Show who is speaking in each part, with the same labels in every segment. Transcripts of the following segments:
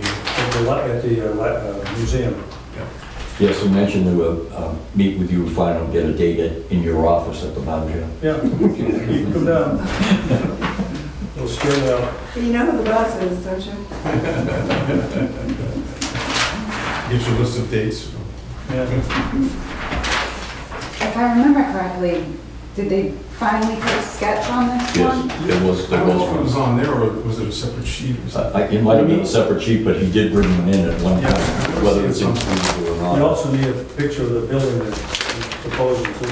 Speaker 1: the, li- at the uh, li- uh, museum.
Speaker 2: Yes, I mentioned they will um, meet with you, find out, get a date at- in your office at the Boundary.
Speaker 1: Yeah, you can come down. We'll steer you out.
Speaker 3: You know who the boss is, don't you?
Speaker 4: Gives you a list of dates.
Speaker 1: Yeah.
Speaker 5: If I remember correctly, did they finally put a sketch on this one?
Speaker 2: Yes, there was,
Speaker 4: I
Speaker 2: there
Speaker 4: don't know if it was
Speaker 2: was.
Speaker 4: on there or was it a separate sheet or something?
Speaker 2: I- I- It might have been a separate sheet, but he did bring them in at one
Speaker 4: Yeah.
Speaker 2: time, whether it's included or
Speaker 1: You
Speaker 2: not.
Speaker 1: also need a picture of the building that you propose to do, so.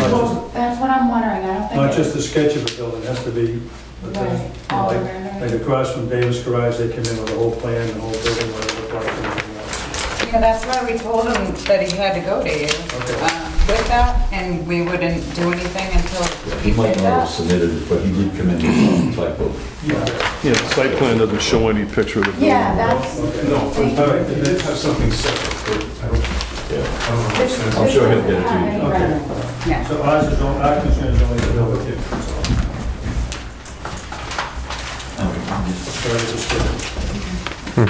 Speaker 1: Not
Speaker 5: Well, that's what I'm wondering, I don't
Speaker 1: just-
Speaker 5: think.
Speaker 1: Not
Speaker 5: it-
Speaker 1: just the sketch of the building, it has to be, the
Speaker 5: Right,
Speaker 1: thing.
Speaker 5: all
Speaker 1: like, like
Speaker 5: over.
Speaker 1: across from Davis Garage, they came in with a whole plan, the whole building, what it looked like. and everything else.
Speaker 6: Yeah, that's why we told him that he had to go to you
Speaker 1: Okay.
Speaker 6: um, with that, and we wouldn't do anything until
Speaker 2: He
Speaker 6: he
Speaker 2: might
Speaker 6: did
Speaker 2: not have
Speaker 6: that.
Speaker 2: submitted it, but he did come in with some type of,
Speaker 1: Yeah,
Speaker 7: Uh, Yeah, the site plan doesn't show any picture of the building.
Speaker 5: Yeah, that's,
Speaker 4: No,
Speaker 5: Thank
Speaker 1: you.
Speaker 4: but it did have something separate, but I don't, I
Speaker 2: yeah.
Speaker 4: don't
Speaker 5: this
Speaker 4: understand.
Speaker 2: I'm sure he'll get it to you.
Speaker 5: to you.
Speaker 1: so ours is only, our concern is only the building. Sorry, just kidding.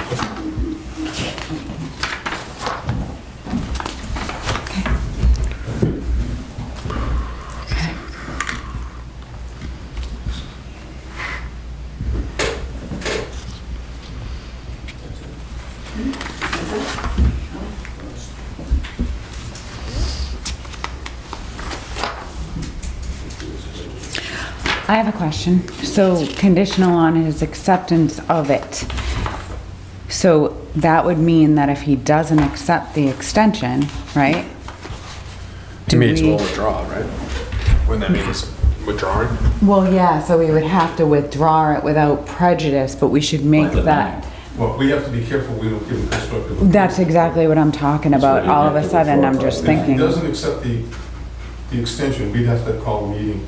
Speaker 6: I have a question. So conditional on his acceptance of it. So that would mean that if he doesn't accept the extension, right?
Speaker 8: You may as
Speaker 6: Do we-
Speaker 8: well withdraw, right? Wouldn't that mean it's withdrawing?
Speaker 6: Well, yeah, so we would have to withdraw it without prejudice, but we should make
Speaker 2: Like the
Speaker 6: that.
Speaker 4: Well, we have to be careful, we don't give him constructive.
Speaker 6: That's exactly what I'm talking
Speaker 2: So
Speaker 6: about.
Speaker 2: you
Speaker 6: All
Speaker 2: have
Speaker 6: of a
Speaker 2: to
Speaker 6: sudden,
Speaker 2: withdraw
Speaker 6: I'm
Speaker 2: from it.
Speaker 6: just
Speaker 4: If he
Speaker 6: thinking,
Speaker 4: doesn't accept the, the extension, we'd have to call a meeting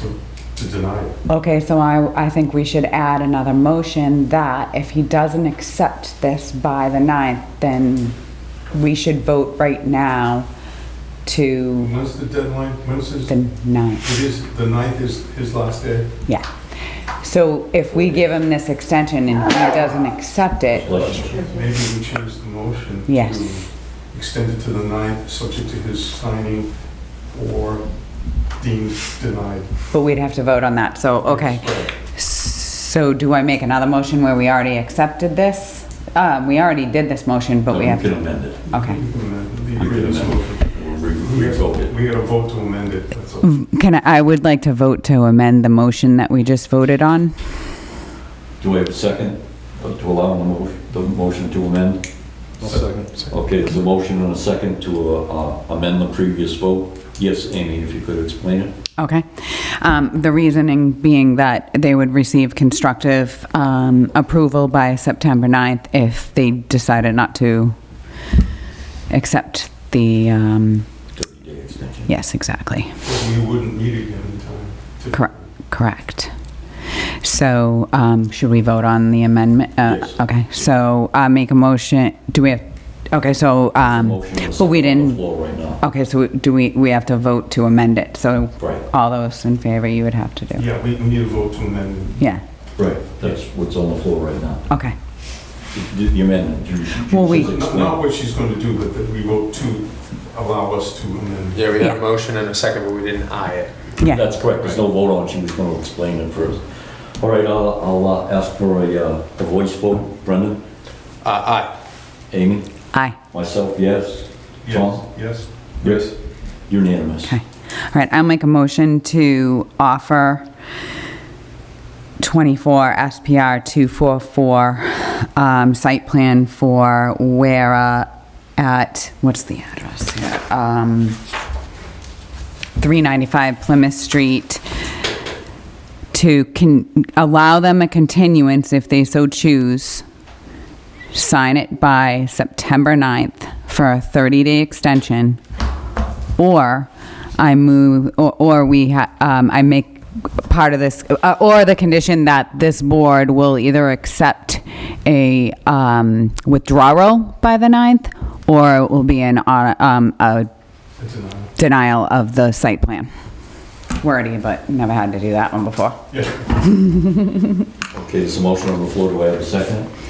Speaker 4: to, to deny it.
Speaker 6: okay, so I, I think we should add another motion that if he doesn't accept this by the 9th, then we should vote right now to
Speaker 4: When's the deadline? When's his,
Speaker 6: the
Speaker 4: it
Speaker 6: 9th.
Speaker 4: is, the ninth is his last day?
Speaker 6: Yeah. So if we give him this extension and he doesn't accept it,
Speaker 2: Let's
Speaker 4: Maybe we change the motion.
Speaker 6: Yes.
Speaker 4: to Extend it to the ninth, subject to his signing or deemed denied.
Speaker 6: but we'd have to vote on that, so, okay. So do I make another motion where we already accepted this? Um, we already did this motion, but we
Speaker 2: We
Speaker 6: have
Speaker 2: can
Speaker 6: to,
Speaker 2: amend it.
Speaker 6: okay.
Speaker 4: We can amend
Speaker 2: We
Speaker 4: the
Speaker 2: can
Speaker 4: previous
Speaker 2: amend
Speaker 4: motion.
Speaker 2: We'll re-
Speaker 4: We gotta-
Speaker 2: revoke it.
Speaker 4: we gotta vote to amend it, that's all.
Speaker 6: Mm, Can I, I would like to vote to amend the motion that we just voted on.
Speaker 2: Do I have a second uh, to allow the mo- the motion to amend? Okay, there's a motion and a second to uh, uh, amend the previous vote. Yes, Amy, if you could explain it.
Speaker 6: Okay. Um, the reasoning being that they would receive constructive, um, approval by September 9th if they decided not to accept the, um,
Speaker 2: 30-day extension.
Speaker 6: yes, exactly.
Speaker 4: But We wouldn't meet again in time. to-
Speaker 6: Correct, correct. So, um, should we vote on the amendment? Uh,
Speaker 2: Yes.
Speaker 6: Okay, so I make a motion, do we have, okay, so, um,
Speaker 2: Motion is
Speaker 6: but we
Speaker 2: on the
Speaker 6: didn't,
Speaker 2: floor right now.
Speaker 6: okay, so do we, we have to vote to amend it, so
Speaker 2: Right,
Speaker 6: all those in favor, you would have to do.
Speaker 4: Yeah, we we need a vote to amend it.
Speaker 6: Yeah,
Speaker 2: right. That's what's on the floor right now.
Speaker 6: okay,
Speaker 2: The the amendment. you- you
Speaker 6: Well, we-
Speaker 2: should
Speaker 4: Not
Speaker 2: explain.
Speaker 4: not what she's gonna do, but that we vote to allow us to amend. it.
Speaker 8: Yeah, we had
Speaker 6: Yeah.
Speaker 8: a motion and a second, but we didn't aye it.
Speaker 6: yeah.
Speaker 2: That's correct. There's no vote on it. She was going to explain it first. All right, I'll I'll uh, ask for a uh, a voice vote. Brendan?
Speaker 8: Uh, aye.
Speaker 2: Amy?
Speaker 6: Aye.
Speaker 2: Myself, yes.
Speaker 4: Yes,
Speaker 2: Tom?
Speaker 4: yes.
Speaker 2: Yes. Unanimous.
Speaker 6: Okay. All right, I'll make a motion to offer 24 SPR 244 um, site plan for Wera at, what's the address here? Um, 395 Plymouth Street to con- allow them a continuance if they so choose. Sign it by September 9th for a 30-day extension or I move, or, or we, ha- um, I make part of this, uh, or the condition that this board will either accept a, um, withdrawal by the 9th, or it will be an, uh, um, a
Speaker 4: A denial.
Speaker 6: denial of the site plan. Wordy, but never had to do that one before.
Speaker 4: Yeah.
Speaker 2: Okay, there's a motion on the floor. Do I have a second?